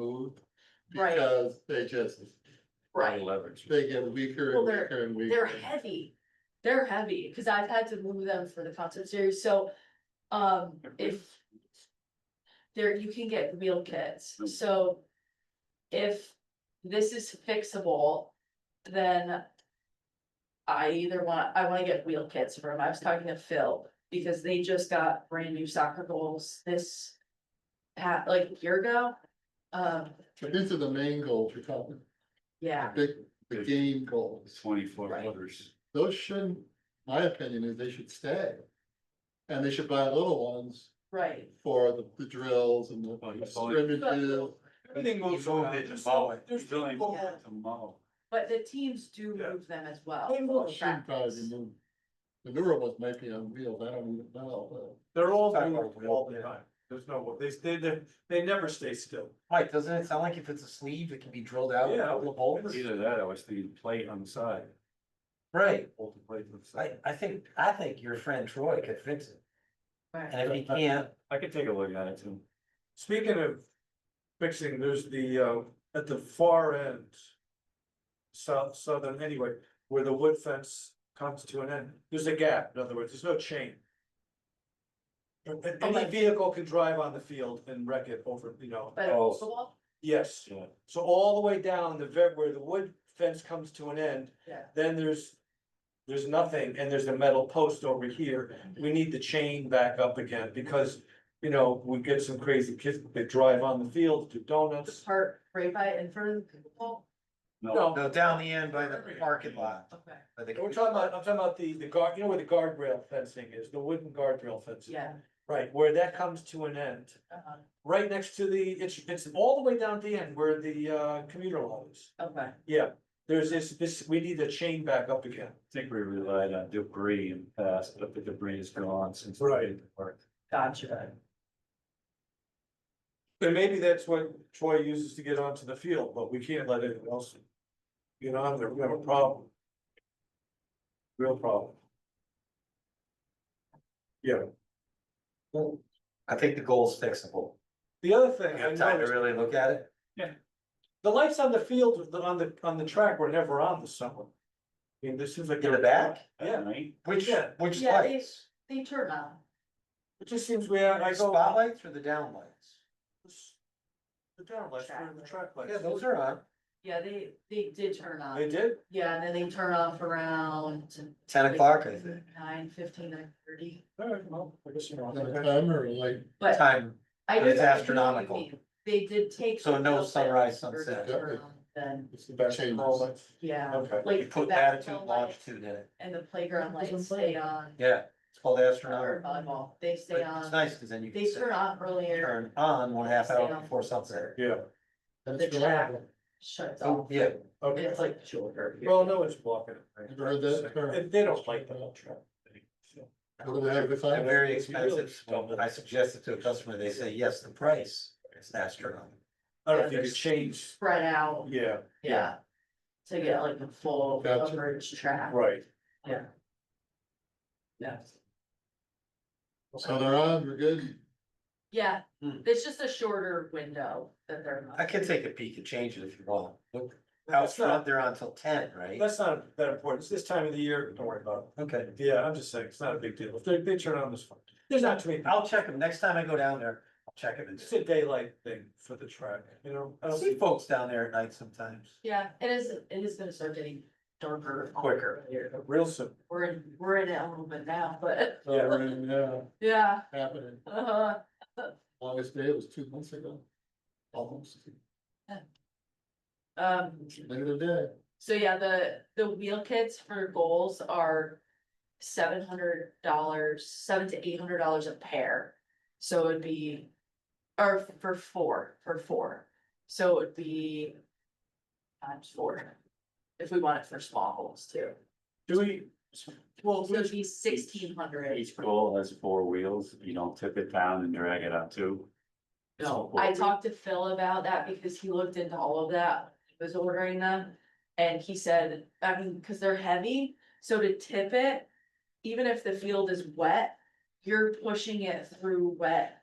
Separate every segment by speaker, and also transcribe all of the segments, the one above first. Speaker 1: moved.
Speaker 2: Right.
Speaker 1: Because they just,
Speaker 2: Right,
Speaker 3: Leverage.
Speaker 1: they get weaker
Speaker 2: Well,
Speaker 1: and
Speaker 2: they're-
Speaker 1: weaker and weaker.
Speaker 2: they're heavy, they're heavy, cause I've had to move them for the concert series, so, um, if. There, you can get wheel kits, so if this is fixable, then. I either want, I wanna get wheel kits for them, I was talking to Phil, because they just got brand new soccer goals this. Pat, like a year ago, um,
Speaker 1: But these are the main goals you're talking,
Speaker 2: yeah,
Speaker 1: big, the game goals.
Speaker 3: Twenty-four
Speaker 2: Right.
Speaker 3: footers.
Speaker 1: Those shouldn't, my opinion is they should stay. And they should buy little ones
Speaker 2: right,
Speaker 1: for the, the drills and
Speaker 3: Oh,
Speaker 1: the
Speaker 3: you saw it.
Speaker 1: scrimmages.
Speaker 3: Everything moves around. There's really
Speaker 2: people-
Speaker 3: to mow.
Speaker 2: but the teams do
Speaker 3: Yeah.
Speaker 2: move them as well.
Speaker 4: They
Speaker 2: for
Speaker 4: move.
Speaker 1: Shouldn't probably
Speaker 2: practice.
Speaker 1: be moved. The newer ones might be on wheels, I don't even know. but-
Speaker 5: They're all
Speaker 3: Type
Speaker 5: moved
Speaker 3: of wheel,
Speaker 5: all the
Speaker 3: yeah.
Speaker 5: time. There's no, they stay, they, they never stay still.
Speaker 4: Right, doesn't it sound like if it's a sleeve, it can be drilled out with a
Speaker 5: Yeah.
Speaker 4: couple of holes?
Speaker 3: Either that, I was thinking plate on the side.
Speaker 4: Right,
Speaker 3: Hold the plate to the
Speaker 4: I,
Speaker 3: side.
Speaker 4: I think, I think your friend Troy could fix it,
Speaker 2: Right.
Speaker 4: and if he can't,
Speaker 3: I could take a look at it too.
Speaker 5: Speaking of fixing, there's the, uh, at the far end. South, southern anyway, where the wood fence comes to an end, there's a gap, in other words, there's no chain. And- and Any
Speaker 2: Okay.
Speaker 5: vehicle can drive on the field and wreck it over, you know,
Speaker 2: But
Speaker 3: Oh.
Speaker 2: football,
Speaker 5: yes,
Speaker 3: Yeah.
Speaker 5: so all the way down the ver- where the wood fence comes to an end.
Speaker 2: yeah,
Speaker 5: then there's. There's nothing, and there's a metal post over here, we need the chain back up again, because, you know, we get some crazy kids, they drive on the field, do
Speaker 2: the
Speaker 5: donuts.
Speaker 2: part right by in front of the pickleball,
Speaker 3: No,
Speaker 4: no, down the end by the parking lot.
Speaker 2: okay,
Speaker 4: I think-
Speaker 5: We're talking about, I'm talking about the, the guard, you know where the guardrail fencing is, the wooden guardrail fencing.
Speaker 2: yeah.
Speaker 5: Right, where that comes to an end,
Speaker 2: uh-huh,
Speaker 5: right next to the, it's, it's all the way down to the end where the, uh, commuter lot is.
Speaker 2: Okay,
Speaker 5: Yeah, there's this, this, we need the chain back up again.
Speaker 3: I think we relied on debris in the past, but the debris is gone since. we
Speaker 5: Right.
Speaker 3: did the work.
Speaker 2: gotcha,
Speaker 5: And maybe that's what Troy uses to get onto the field, but we can't let anyone else. Get on there, we have a problem. Real problem. Yeah,
Speaker 4: I think the goal's fixable,
Speaker 5: the other
Speaker 4: I
Speaker 5: thing I
Speaker 4: have time to
Speaker 5: noticed,
Speaker 4: really look at it,
Speaker 5: the lights on the field, on the, on the track were never on this summer. I mean, this seems like.
Speaker 4: in the
Speaker 5: they're-
Speaker 4: back,
Speaker 3: At
Speaker 5: Yeah,
Speaker 3: night,
Speaker 4: which,
Speaker 5: Yeah.
Speaker 4: which
Speaker 2: Yeah, they-
Speaker 4: lights?
Speaker 2: they turn on,
Speaker 5: it just seems we, I
Speaker 4: The
Speaker 5: go.
Speaker 4: Spotlights or the down lights?
Speaker 5: The down lights, were in the track lights.
Speaker 4: Yeah, those are on,
Speaker 2: yeah, they, they did turn
Speaker 5: They
Speaker 2: on,
Speaker 5: did?
Speaker 2: yeah, and then they turn off around.
Speaker 4: ten o'clock, I think,
Speaker 2: Nine fifteen, nine thirty,
Speaker 5: Alright, well, I guess you know.
Speaker 1: The timer, like,
Speaker 2: but.
Speaker 4: time,
Speaker 2: I just- I know
Speaker 4: It's
Speaker 2: what you
Speaker 4: astronomical.
Speaker 2: mean. They did take.
Speaker 4: So no
Speaker 2: the outfit
Speaker 4: sunrise,
Speaker 2: or the
Speaker 4: sunset.
Speaker 2: turn on, Then,
Speaker 1: it's the best changes.
Speaker 2: yeah,
Speaker 5: Okay.
Speaker 2: like.
Speaker 4: you put
Speaker 2: the basketball
Speaker 4: latitude,
Speaker 2: lights
Speaker 4: longitude in it,
Speaker 2: And the playground
Speaker 1: Doesn't
Speaker 2: lights
Speaker 1: play.
Speaker 2: stay on,
Speaker 4: yeah, it's called
Speaker 2: or
Speaker 4: astronomical.
Speaker 2: volleyball, they
Speaker 4: But
Speaker 2: stay
Speaker 4: It's
Speaker 2: on,
Speaker 4: nice, cause then you can
Speaker 2: they turn on earlier,
Speaker 4: turn on one half
Speaker 2: Stay
Speaker 4: hour
Speaker 2: on.
Speaker 4: before sunset.
Speaker 5: Yeah,
Speaker 1: And
Speaker 2: The
Speaker 1: it's
Speaker 2: track.
Speaker 1: reliable.
Speaker 2: shuts
Speaker 4: Oh,
Speaker 2: off,
Speaker 4: yeah,
Speaker 2: and
Speaker 5: okay.
Speaker 2: it's like shorter.
Speaker 5: Well, no one's blocking it. right?
Speaker 1: You've heard that term.
Speaker 5: If They don't like the whole trip.
Speaker 1: Does it have the
Speaker 4: They're
Speaker 1: time?
Speaker 4: very expensive. When I suggested to a customer, they say, yes, the price is astronomical.
Speaker 5: I don't
Speaker 2: Yeah,
Speaker 5: think you
Speaker 2: there's-
Speaker 5: could change,
Speaker 2: Spread out,
Speaker 5: yeah,
Speaker 2: yeah, to get like a full
Speaker 1: Gotcha.
Speaker 2: coverage track,
Speaker 5: right.
Speaker 2: yeah.
Speaker 1: So they're on, we're good.
Speaker 2: Yeah,
Speaker 4: Hmm.
Speaker 2: it's just a shorter window that they're.
Speaker 4: I can take a peek and change it if you want. Look, out
Speaker 5: That's not-
Speaker 4: front, they're on till ten, right?
Speaker 5: That's not that important, it's this time of the year, don't worry about
Speaker 4: Okay,
Speaker 5: it, yeah, I'm just saying, it's not a big deal, if they, they turn on this one, there's not too many, people.
Speaker 4: I'll check them. Next time I go down there, I'll check them and
Speaker 5: it's a daylight thing for the track, you know? I
Speaker 4: I
Speaker 5: don't
Speaker 4: see
Speaker 5: think-
Speaker 4: folks down there at night sometimes.
Speaker 2: Yeah, it is, it is gonna start getting darker.
Speaker 4: Quicker.
Speaker 2: here.
Speaker 5: Real soon,
Speaker 2: We're in, we're in it a little bit now, but,
Speaker 4: Uh.
Speaker 1: So we're in, yeah,
Speaker 2: yeah,
Speaker 1: happening.
Speaker 2: uh,
Speaker 1: Longest day was two months ago. Almost.
Speaker 2: um,
Speaker 1: End of the day.
Speaker 2: so yeah, the, the wheel kits for goals are. Seven hundred dollars, seven to eight hundred dollars a pair, so it'd be. Or for four, for four, so it'd be. Times four, if we want it for small goals too,
Speaker 5: do we? Well,
Speaker 2: so it'd be sixteen hundred.
Speaker 3: Each goal has four wheels, you don't tip it down and drag it out too.
Speaker 2: No, I talked to Phil about that because he looked into all of that, he was ordering them. And he said, I mean, cause they're heavy, so to tip it, even if the field is wet, you're pushing it through wet.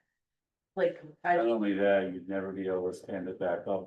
Speaker 6: like, I
Speaker 5: Not only that, you'd never be able to stand it back up